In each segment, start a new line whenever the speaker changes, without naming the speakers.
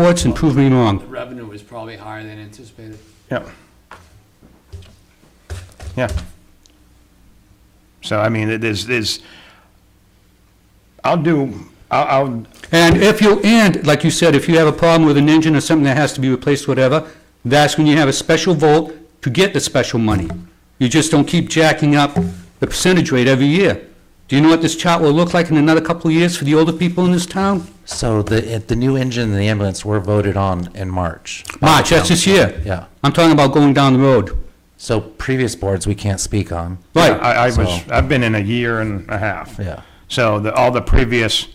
reports and prove me
The
wrong.
revenue was probably higher than anticipated.
Yep. Yeah. So, I mean, it is, is, I'll do, I'll, I'll,
And if you, and like you said, if you have a problem with an engine or something that has to be replaced, whatever, that's when you have a special vote to get the special money. You just don't keep jacking up the percentage rate every year. Do you know what this chart will look like in another couple of years for the older people in this town?
So the, it- the new engine and the ambulance were voted on in March.
March, that's this year.
Yeah.
I'm talking about going down the road.
So previous boards, we can't speak on.
Right,
I, I
So-
was, I've been in a year and a half.
Yeah.
So the, all the previous,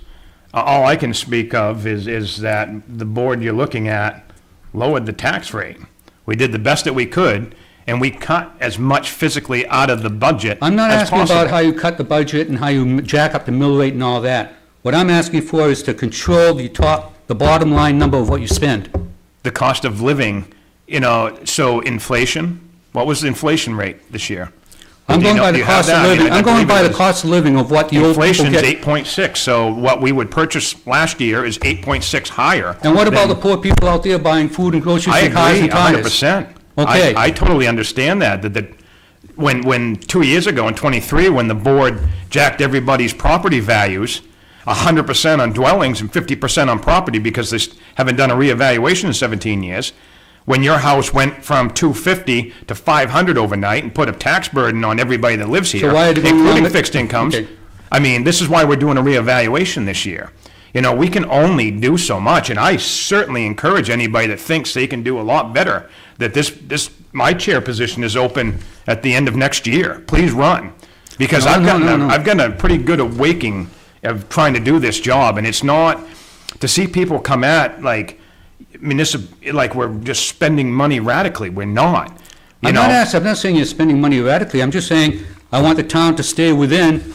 uh, all I can speak of is, is that the board you're looking at lowered the tax rate. We did the best that we could, and we cut as much physically out of the budget
I'm not
as
asking about
possible.
how you cut the budget and how you m- jack up the mill rate and all that. What I'm asking for is to control the top, the bottom line number of what you spend.
The cost of living, you know, so inflation, what was the inflation rate this year?
I'm
Do you
going
know-
by
do
the
you have
cost
that?
of
I mean,
living,
I
I'm going
believe it
by the
was-
cost of living of what the old people
Inflation's
get.
eight point six, so what we would purchase last year is eight point six higher.
And what about
than-
the poor people out there buying food and groceries
I
and cars
agree,
and
a hundred
tires?
percent.
Okay.
I, I totally understand that, that, that, when, when, two years ago, in twenty-three, when the board jacked everybody's property values, a hundred percent on dwellings and fifty percent on property, because they haven't done a reevaluation in seventeen years, when your house went from two fifty to five hundred overnight and put a tax burden on everybody that lives here,
why are they going along
including
with-
fixed incomes,
Okay.
I mean, this is why we're doing a reevaluation this year. You know, we can only do so much, and I certainly encourage anybody that thinks they can do a lot better, that this, this, my chair position is open at the end of next year. Please run. Because
No,
I've
no,
gotten,
no,
a-
no.
I've gotten a pretty good awakening of trying to do this job, and it's not, to see people come at like municipal, like we're just spending money radically, we're not. You
I'm
know,
not asking, I'm not saying you're spending money radically, I'm just saying I want the town to stay within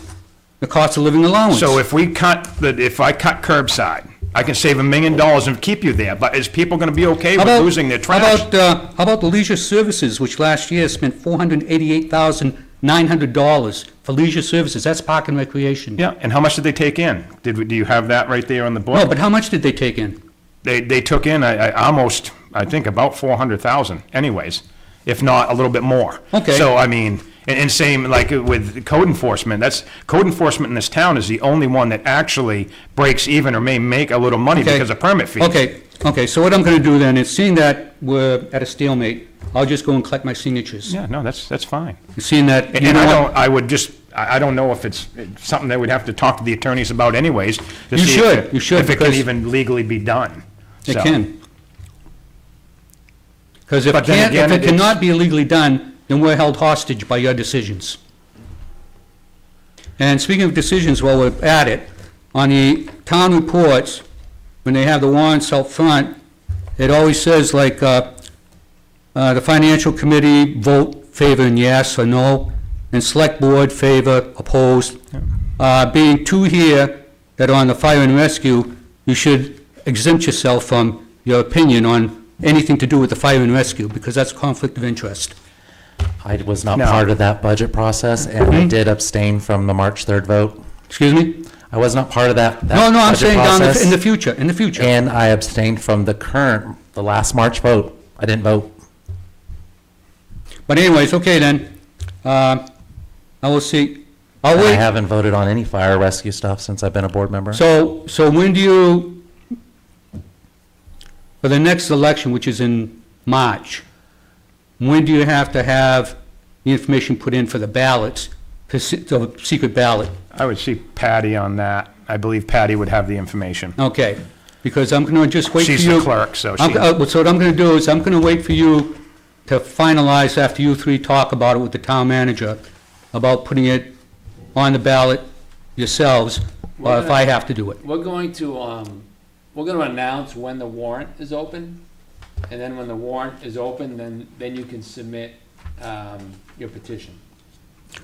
the cost of living allowance.
So if we cut, the if I cut curbside, I can save a million dollars and keep you there, but is people gonna be okay
How
with
about-
losing their
How
trash?
about, uh, how about the leisure services, which last year spent four hundred and eighty-eight thousand nine hundred dollars for leisure services, that's park and recreation.
Yeah, and how much did they take in? Did, we- do you have that right there on the
No,
board?
but how much did they take in?
They, they took in, I, I almost, I think about four hundred thousand anyways, if not a little bit more.
Okay.
So, I mean, and, and same like with code enforcement, that's, code enforcement in this town is the only one that actually breaks even or may make a little money
Okay.
because of permit fees.
Okay, okay, so what I'm gonna do then is, seeing that we're at a stalemate, I'll just go and collect my signatures.
Yeah, no, that's, that's fine.
Seeing that, you
And
know
I
what?
don't, I would just, I, I don't know if it's it's something that we'd have to talk to the attorneys about anyways. to
You
see if
should,
it-
you should,
If it can
because-
even legally be done.
It
So,
can. Because if
But then
can't, if
again,
it
it's-
cannot be legally done, then we're held hostage by your decisions. And speaking of decisions, while we're at it, on the town reports, when they have the warrants out front, it always says like, uh, uh, the financial committee vote favoring yes or no, and select board favor, opposed. Uh, Being two here that are on the fire and rescue, you should exempt yourself from your opinion on anything to do with the fire and rescue, because that's conflict of interest.
I was not
No.
part of that budget process, and
Mm-hmm.
I did abstain from the March 3rd vote.
Excuse me?
I was not part of that, that
No, no, I'm
budget
saying down the-
process,
in the future, in the future.
And I abstained from the current, the last March vote. I didn't vote.
But anyways, okay then. Uh, I will see. I'll
And I
Oh, wait.
haven't voted on any fire rescue stuff since I've been a board member.
So, so when do you, for the next election, which is in March, when do you have to have the information put in for the ballots, for se- the secret ballot?
I would see Patty on that. I believe Patty would have the information.
Okay, because I'm going to just wait for you.
She's the clerk, so
I'm-
she-
uh, So what I'm going to do is, I'm going to wait for you to finalize after you three talk about it with the town manager, about putting it on the ballot yourselves, or if I have to do it.
We're going to, um, we're gonna announce when the warrant is open, and then when the warrant is open, then, then you can submit, um, your petition.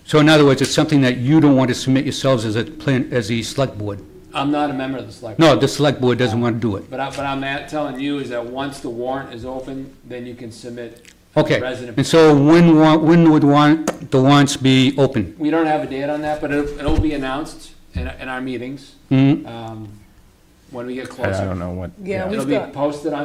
So in other words, it's something that you don't want to submit yourselves as a plan, as the select board?
I'm not a member of the select.
No, the select board doesn't want to do it.
But I, but I'm at- telling you is that once the warrant is open, then you can submit. a
Okay,
Resident.
and so when, wa- when would warrant, the warrants be open?
We don't have a date on that, but it'll, it'll be announced in, in our meetings. Um, when we get
I I
closer.
don't know what.
Yeah, we-
It'll be posted on